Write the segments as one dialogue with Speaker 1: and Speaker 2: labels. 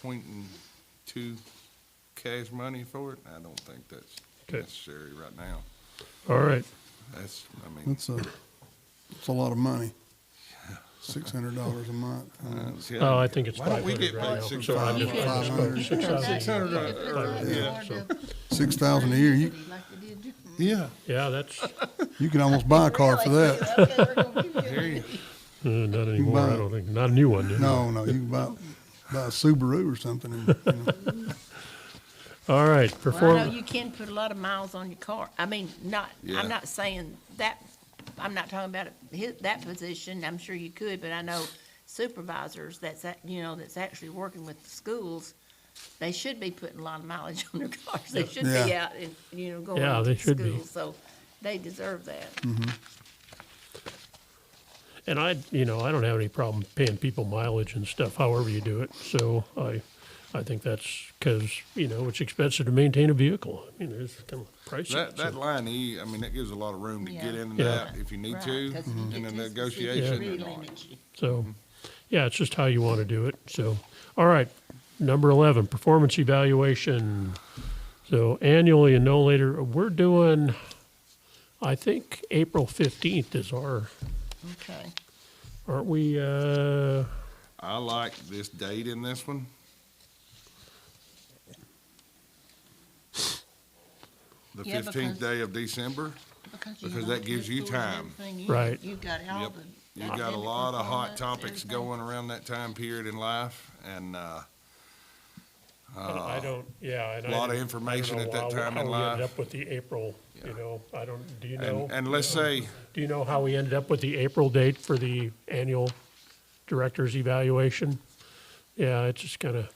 Speaker 1: pointing to cash money for it, I don't think that's
Speaker 2: Okay.
Speaker 1: necessary right now.
Speaker 2: All right.
Speaker 1: That's, I mean,
Speaker 3: That's a, that's a lot of money. Six hundred dollars a month.
Speaker 1: uh, see,
Speaker 2: Oh, I think it's
Speaker 1: Why don't
Speaker 2: five
Speaker 1: we
Speaker 2: hundred
Speaker 1: get
Speaker 2: right
Speaker 1: paid
Speaker 2: now.
Speaker 1: six
Speaker 2: So I
Speaker 3: hundred?
Speaker 2: just- I just spoke
Speaker 3: Five
Speaker 2: six thousand.
Speaker 1: Six hundred, uh, uh, yeah, so,
Speaker 3: Six thousand a year, you,
Speaker 1: yeah,
Speaker 2: Yeah, that's, uh,
Speaker 3: you could almost buy a car for that.
Speaker 1: there you,
Speaker 2: not anymore, I
Speaker 3: buy-
Speaker 2: don't think, not a new one. anyway.
Speaker 3: No, no, you can buy, buy a Subaru or something and, you know.
Speaker 2: All right,
Speaker 4: Well, I know
Speaker 2: perform,
Speaker 4: you can put a lot of miles on your car. I mean, not,
Speaker 1: Yeah.
Speaker 4: I'm not saying that, I'm not talking about his, that position. I'm sure you could, but I know supervisors that's, act- you know, that's actually working with the schools, they should be putting a lot of mileage on their cars. They should be
Speaker 3: Yeah.
Speaker 4: out and, you know, going
Speaker 2: Yeah,
Speaker 4: to
Speaker 2: they
Speaker 4: the
Speaker 2: should be.
Speaker 4: schools. So they deserve that.
Speaker 2: and I, you know, I don't have any problem paying people mileage and stuff, however you do it. So I, I think that's because, you know, it's expensive to maintain a vehicle. I mean, there's kind of price.
Speaker 1: that, that
Speaker 2: so-
Speaker 1: line E, I mean, that gives a lot of room to get
Speaker 4: Yeah.
Speaker 1: in and
Speaker 2: Yeah.
Speaker 1: out if you need
Speaker 4: Right,
Speaker 1: to,
Speaker 3: Mm-hmm.
Speaker 4: 'cause if you
Speaker 1: in a
Speaker 4: get too specific,
Speaker 1: negotiation.
Speaker 4: it
Speaker 1: or
Speaker 4: really
Speaker 1: not.
Speaker 4: limits you.
Speaker 2: So, yeah, it's just how you want to do it. So, all right, number 11, performance evaluation. So annually and no later, we're doing, I think, April 15th is our,
Speaker 4: Okay.
Speaker 2: aren't we, uh,
Speaker 1: I like this date in this one. The
Speaker 4: Yeah,
Speaker 1: fifteenth
Speaker 4: because-
Speaker 1: day of December.
Speaker 4: you
Speaker 1: Because
Speaker 4: know
Speaker 1: that gives you
Speaker 4: schools and
Speaker 1: time.
Speaker 4: everything, you-
Speaker 2: Right.
Speaker 4: You've got all
Speaker 1: Yep.
Speaker 4: the.
Speaker 1: You got a
Speaker 4: academic
Speaker 1: lot of hot
Speaker 4: performance,
Speaker 1: topics
Speaker 4: everything.
Speaker 1: going around that time period in life and, uh,
Speaker 2: I don't, yeah. and
Speaker 1: Lot
Speaker 2: I
Speaker 1: of
Speaker 2: don't- I don't
Speaker 1: information
Speaker 2: know
Speaker 1: at that
Speaker 2: how-
Speaker 1: time in
Speaker 2: How we ended
Speaker 1: life.
Speaker 2: up with the April, you know, I don't, do you know?
Speaker 1: and, and let's say,
Speaker 2: Do you know how we ended up with the April date for the annual director's evaluation? Yeah, it's just kind of,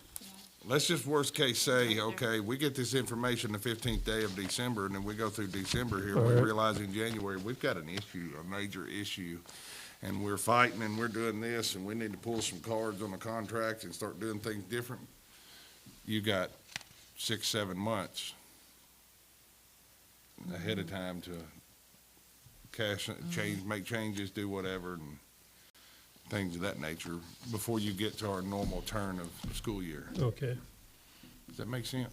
Speaker 1: let's just worst case say, okay, we get this information the fifteenth day of December and then we go through December here. We
Speaker 2: Alright.
Speaker 1: realize in January, we've got an issue, a major issue. And we're fighting and we're doing this and we need to pull some cards on the contract and start doing things different. You got six, seven months ahead of time to cash, change, make changes, do whatever and things of that nature before you get to our normal turn of school year.
Speaker 2: okay.
Speaker 1: Does that make sense?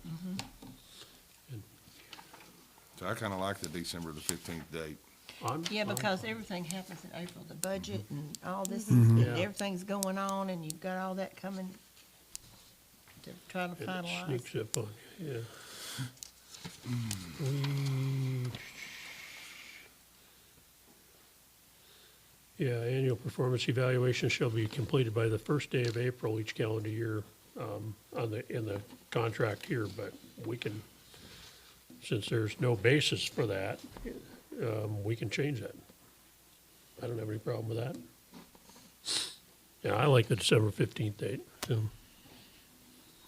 Speaker 1: So I kinda like the December the fifteenth date.
Speaker 2: I'm-
Speaker 4: Yeah,
Speaker 2: I'm-
Speaker 4: because everything happens in April, the budget and all this, and
Speaker 2: Mm-hmm. Yeah.
Speaker 4: everything's going on, and you've got all that coming to try to
Speaker 2: And it
Speaker 4: finalize.
Speaker 2: sneaks up on you, yeah. We- Yeah, annual performance evaluation shall be completed by the first day of April each calendar year um, on the, in the contract here, but we can, since there's no basis for that, um, we can change that. I don't have any problem with that. Yeah, I like the December 15th date, so.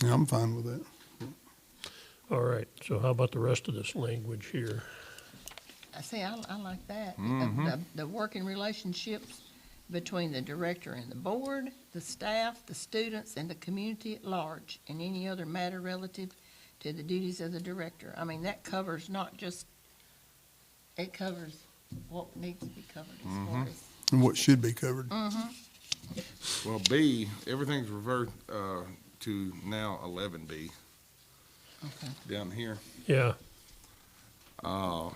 Speaker 3: Yeah, I'm fine with that.
Speaker 2: All right, so how about the rest of this language here?
Speaker 4: I see, I, I like that,
Speaker 1: Mm-hmm.
Speaker 4: the, the working relationships between the director and the board, the staff, the students, and the community at large, and any other matter relative to the duties of the director. I mean, that covers not just, it covers what needs to be covered as
Speaker 1: Mm-hmm.
Speaker 4: far as
Speaker 3: And what should be covered.
Speaker 1: Well, B, everything's revert, uh, to now eleven B.
Speaker 4: Okay.
Speaker 1: Down here.
Speaker 2: Yeah,
Speaker 1: The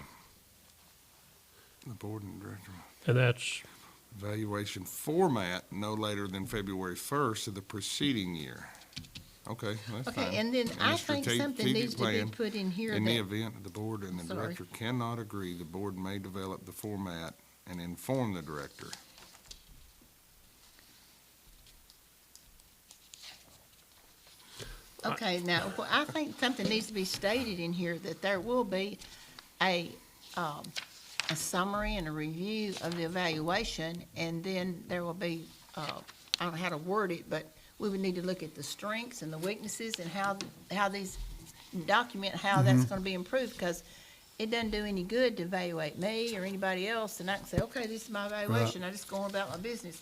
Speaker 1: board and director.
Speaker 2: and that's,
Speaker 1: Evaluation format no later than February first of the preceding year. Okay, that's fine.
Speaker 4: Okay, and then I
Speaker 1: the
Speaker 4: think
Speaker 1: strate-
Speaker 4: something
Speaker 1: strategic
Speaker 4: needs to be
Speaker 1: plan,
Speaker 4: put in here
Speaker 1: In the
Speaker 4: that,
Speaker 1: event the board and the
Speaker 4: Sorry.
Speaker 1: director cannot agree, the board may develop the format and inform the director.
Speaker 4: okay, now, well, I think something needs to be stated in here that there will be a, um, a summary and a review of the evaluation, and then there will be, uh, I don't know how to word it, but we would need to look at the strengths and the weaknesses and how, how these, document how that's gonna be improved, because it doesn't do any good to evaluate me or anybody else, and I can say, okay, this is my evaluation, I just go on about my business.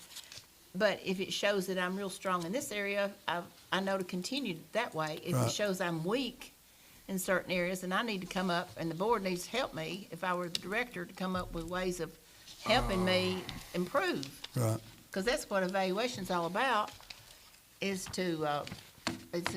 Speaker 4: But if it shows that I'm real strong in this area, I, I know to continue that way. If it
Speaker 3: Right.
Speaker 4: shows I'm weak in certain areas and I need to come up, and the board needs to help me, if I were the director, to come up with ways of helping me improve.
Speaker 3: Right.
Speaker 4: Because that's what evaluation's all about, is to, uh, it's